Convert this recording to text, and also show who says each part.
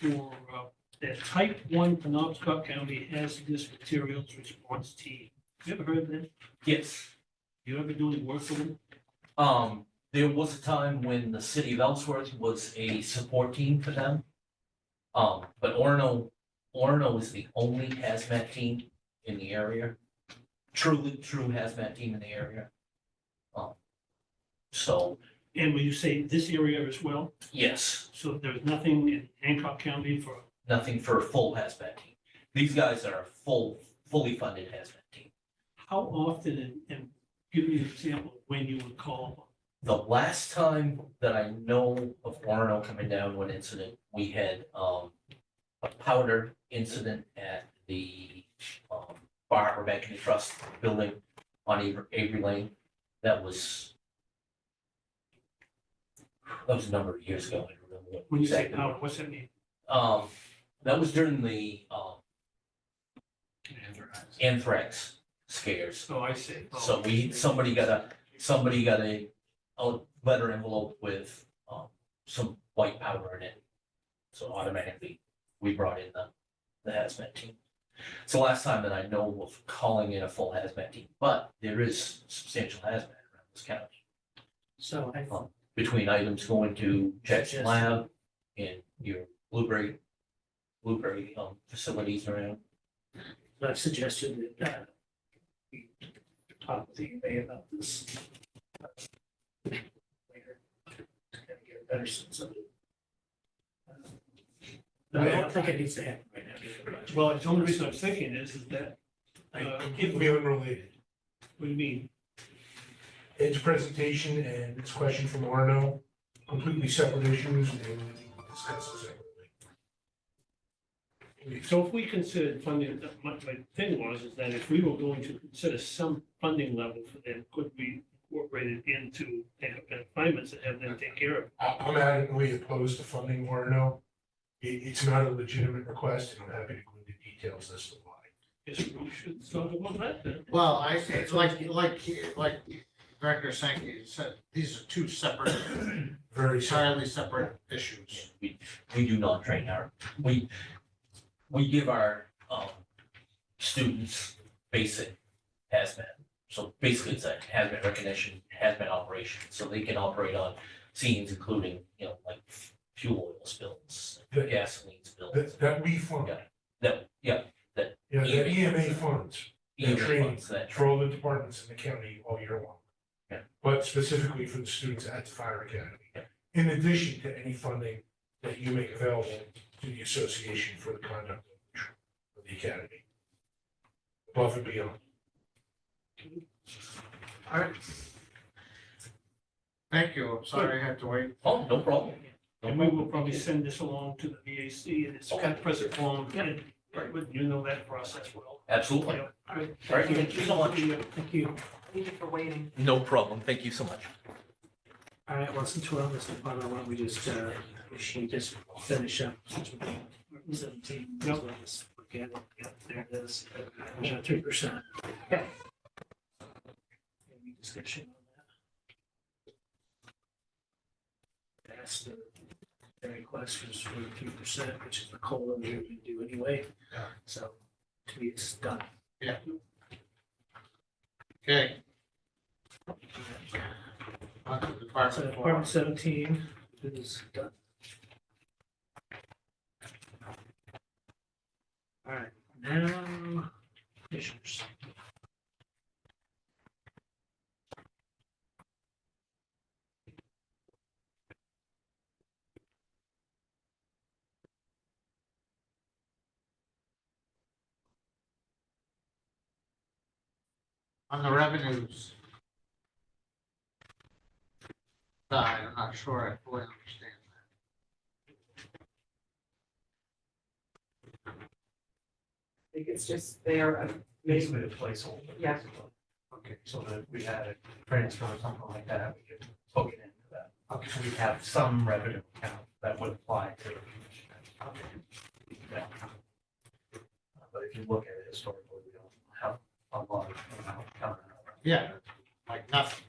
Speaker 1: for, uh, that type one Penobscot County hazardous materials response team. You ever heard of that?
Speaker 2: Yes,
Speaker 1: You ever do any work for them?
Speaker 2: um, there was a time when the city of Ellsworth was a support team for them. Um, but Orno, Orno is the only hazmat team in the area, truly true hazmat team in the area. Um, so,
Speaker 1: And when you say this area as well,
Speaker 2: yes,
Speaker 1: so there's nothing in Hancock County for,
Speaker 2: nothing for a full hazmat team. These guys are a full, fully funded hazmat team.
Speaker 1: how often, and- and give me an example of when you would call.
Speaker 2: The last time that I know of Orno coming down with an incident, we had, um, a powder incident at the, um, Bar Rebecca Trust building on Avery, Avery Lane. That was, that was a number of years ago. I don't remember what
Speaker 1: When you say
Speaker 2: exactly.
Speaker 1: power, what's that mean?
Speaker 2: Um, that was during the, um, anthrax scares.
Speaker 1: So I say. oh,
Speaker 2: So we, somebody got a, somebody got a, a letter envelope with, um, some white powder in it. So automatically, we brought in the, the hazmat team. It's the last time that I know of calling in a full hazmat team, but there is substantial hazmat around this county.
Speaker 3: So I,
Speaker 2: Between items going to Jackson
Speaker 3: Yes.
Speaker 2: Lab and your blueberry, blueberry, um, facilities around.
Speaker 3: I suggested that uh, we talk with the EMA about this. uh, later to kind of get a better sense of it. Uh, But I don't think it needs to happen right now.
Speaker 1: Well, it's the only reason I'm thinking is, is that, uh, if,
Speaker 4: Completely unrelated.
Speaker 1: what do you mean?
Speaker 4: Ed's presentation and this question from Arno, completely separate issues and they will discuss it separately.
Speaker 1: So if we considered funding, that my, my thing was, is that if we were going to consider some funding level for them, could we incorporate it into assignments and have them take care of? it?
Speaker 4: I, I'm adamantly opposed to funding Arno. It, it's not a legitimate request and I'm happy to go into details as to why.
Speaker 1: Yes, we should talk about that then.
Speaker 5: Well, I, it's like, like, like Director Sankey said, these are two separate,
Speaker 4: Very sorry.
Speaker 5: entirely separate issues.
Speaker 2: We, we do not train our, we, we give our, um, students basic hazmat. So basically it's a hazmat recognition, hazmat operation, so they can operate on scenes including, you know, like fuel oil spills,
Speaker 4: That-
Speaker 2: gasoline spills.
Speaker 4: That, that we fund,
Speaker 2: Yeah. That, yeah,
Speaker 4: yeah, that EMA funds
Speaker 2: EMA
Speaker 4: training.
Speaker 2: funds that,
Speaker 4: for all the departments in the county all year long.
Speaker 2: Yeah.
Speaker 4: But specifically for the students at the fire academy, in addition to any funding that you make available to the association for the conduct of the academy. Above and beyond.
Speaker 5: Thank you, I'm sorry I had to wait.
Speaker 2: oh, no problem. No
Speaker 1: And we will
Speaker 2: problem.
Speaker 1: probably send this along to the VAC in its kind of present form, and you know that process well.
Speaker 2: Absolutely.
Speaker 1: Yeah. All right.
Speaker 2: All right, thank you so much.
Speaker 3: Thank you.
Speaker 6: Thank you for waiting.
Speaker 2: No problem, thank you so much.
Speaker 3: All right, well, since we're on this department, why don't we just, uh, we should just finish up. Seventeen.
Speaker 1: Yep.
Speaker 3: Okay, there it is, three percent. Any discussion on that? That's the, the request was for three percent, which is the COLA we were gonna do anyway, so to me, it's done.
Speaker 5: Okay. On to
Speaker 3: So
Speaker 5: Department Four.
Speaker 3: Department seventeen is done. All right, now, commissioners.
Speaker 5: On the revenues. Side, I'm not sure I fully understand
Speaker 6: I think it's just there. uh, maybe-
Speaker 7: basically a placeholder.
Speaker 6: Yeah.
Speaker 7: basically. Okay, so that we had a transfer or something like that, we could hook it into that. Okay, so we have some revenue account that would apply to. Yeah. But if you look at it historically, we don't have a lot of amount coming out.
Speaker 5: Yeah. like nothing.